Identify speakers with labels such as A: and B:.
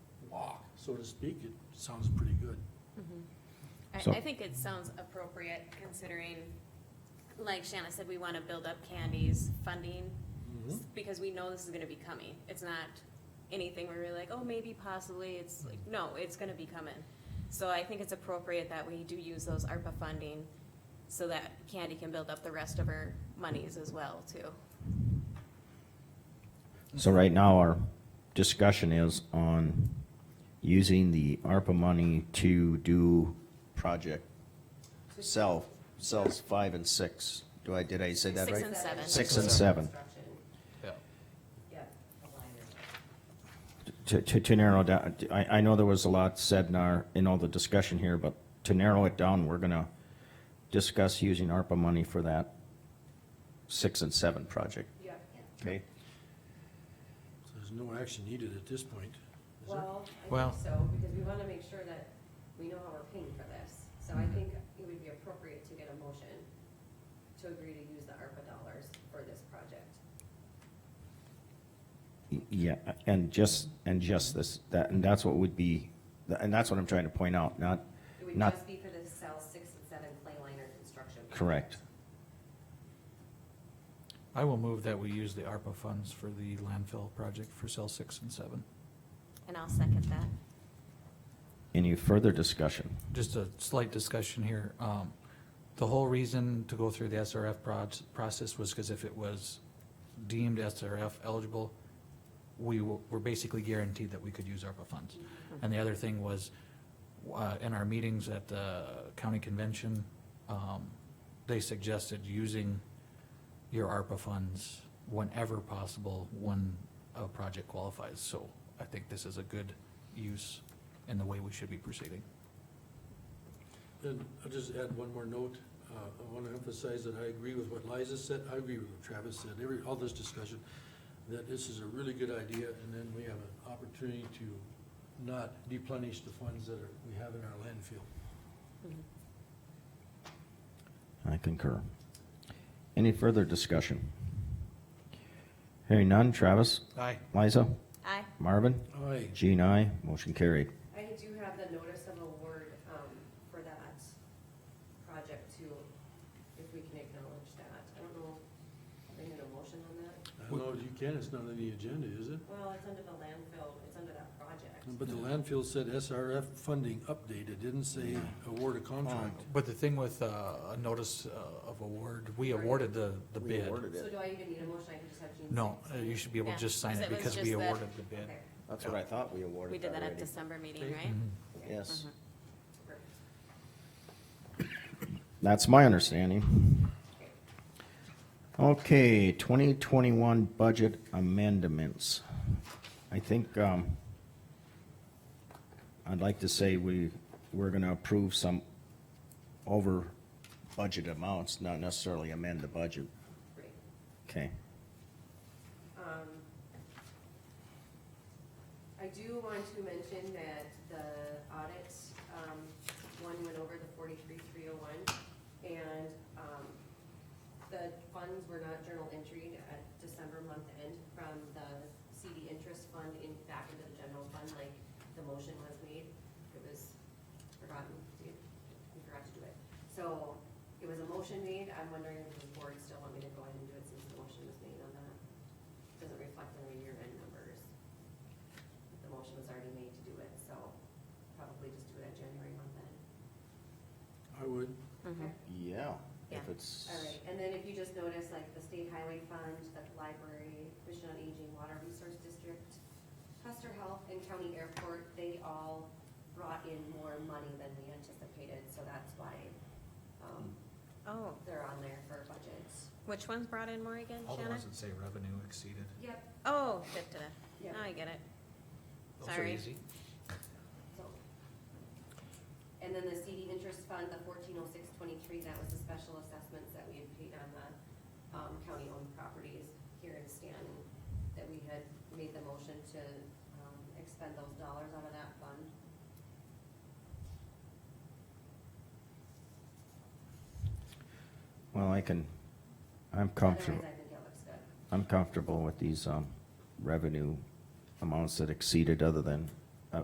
A: so to speak, it sounds pretty good.
B: Mm-hmm. I,
C: So-
B: I think it sounds appropriate considering, like Shanna said, we wanna build up Candy's funding
A: Mm-hmm.
C: Mm-hmm.
B: s- because we know this is gonna be coming. It's not anything where we're like, oh, maybe possibly, it's like,
C: Mm-hmm.
B: no, it's gonna be coming. So I think it's appropriate that we do use those ARPA funding so that Candy can build up the rest of her monies as well too.
C: So right now, our discussion is on using the ARPA money to do project cell, cells five and six. Do I, did I say that
B: Six
C: right?
B: and seven.
C: Six and seven.
D: Yeah.
C: To, to, to narrow down, I, I know there was a lot said in our, in all the discussion here, but to narrow it down, we're gonna discuss using ARPA money for that six and seven project,
E: Yeah,
C: okay?
A: So There's no action needed at this point, is there?
E: well, I
D: Well-
E: think so, because we wanna make sure that we know how we're paying for this. So I think it would be appropriate to get a motion to agree to use the ARPA dollars for this project.
C: Yeah, and just, and just this, that, and that's what would be, and that's what I'm trying to point out, not,
E: It would
C: Not-
E: just be for the cell six and seven clay liner construction.
C: correct.
D: I will move that we use the ARPA funds for the landfill project for cell six and seven.
B: And I'll second that.
C: Any further discussion?
D: Just a slight discussion here. Um, the whole reason to go through the SRF proj- process was because if it was deemed SRF eligible, we w- were basically guaranteed that we could use ARPA funds. And the other thing was, uh, in our meetings at the county convention, um, they suggested using your ARPA funds whenever possible when a project qualifies. So I think this is a good use in the way we should be proceeding.
A: And I'll just add one more note. Uh, I want to emphasize that I agree with what Liza said, I agree with what Travis said, every, all this discussion, that this is a really good idea, and then we have an opportunity to not deplenish the funds that are, we have in our landfill.
E: Mm-hmm.
C: I concur. Any further discussion? Hearing none, Travis,
D: Aye.
C: Liza,
B: Aye.
C: Marvin,
A: Aye,
C: Jean, I, motion carried.
E: I do have the notice of award, um, for that project too, if we can acknowledge that. I don't know, if they need a motion on that.
A: I don't know if you can, it's not on the agenda, is it?
E: Well, it's under the landfill, it's under that project.
A: But the landfill said SRF funding update, it didn't say award a contract.
D: But the thing with uh, a notice uh, of award, we awarded the, the bid.
E: So do I even need a motion? I can just have Jean.
D: No,
E: sign
D: uh,
E: it?
D: you should be able to
B: Yeah,
D: just sign
B: 'cause
D: it
B: it was
D: because we
B: just the-
D: awarded the bid.
E: Okay,
C: That's what I thought we awarded.
B: We did that at
C: already.
B: December meeting, right? Mm-hmm.
D: Mhm.
C: Yes,
E: perfect.
C: that's my understanding.
E: Okay.
C: Okay, twenty twenty-one budget amendments. I think, um, I'd like to say we, we're gonna approve some over budget amounts, not necessarily amend the budget.
E: Great.
C: Okay,
E: Um, I do want to mention that the audit, um, one went over the forty-three, three oh one, and, um, the funds were not journal entry at December month end from the CD interest fund in, back into the general fund, like the motion was made. It was forgotten, we we forgot to do it. So, it was a motion made, I'm wondering if the board still want me to go ahead and do it since the motion was made on that doesn't reflect on our year-end numbers. The motion was already made to do it, so probably just do it at January month then.
A: Um, I would,
B: Mhm.
C: yeah, if
B: Yeah.
C: it's.
E: All right, and then if you just notice, like, the state highway fund, the library, Commission on Aging, Water Resource District, Custer Health and County Airport, they all brought in more money than we anticipated, so that's why, um,
B: Oh,
E: they're on there for budgets.
B: which ones brought in more again,
D: All the
B: Shanna?
D: ones that say revenue exceeded.
E: Yep,
B: Oh, da, da, da.
E: yep,
B: Now I get it.
D: Those are
B: Sorry.
D: easy.
E: so. And then the CD interest fund, the fourteen oh six twenty-three, that was the special assessments that we had paid on the, um, county-owned properties here in Stanton, that we had made the motion to, um, expend those dollars out of that fund.
C: Well, I can, I'm comfortable,
E: Otherwise, I think it looks good.
C: I'm comfortable with these, um, revenue amounts that exceeded other than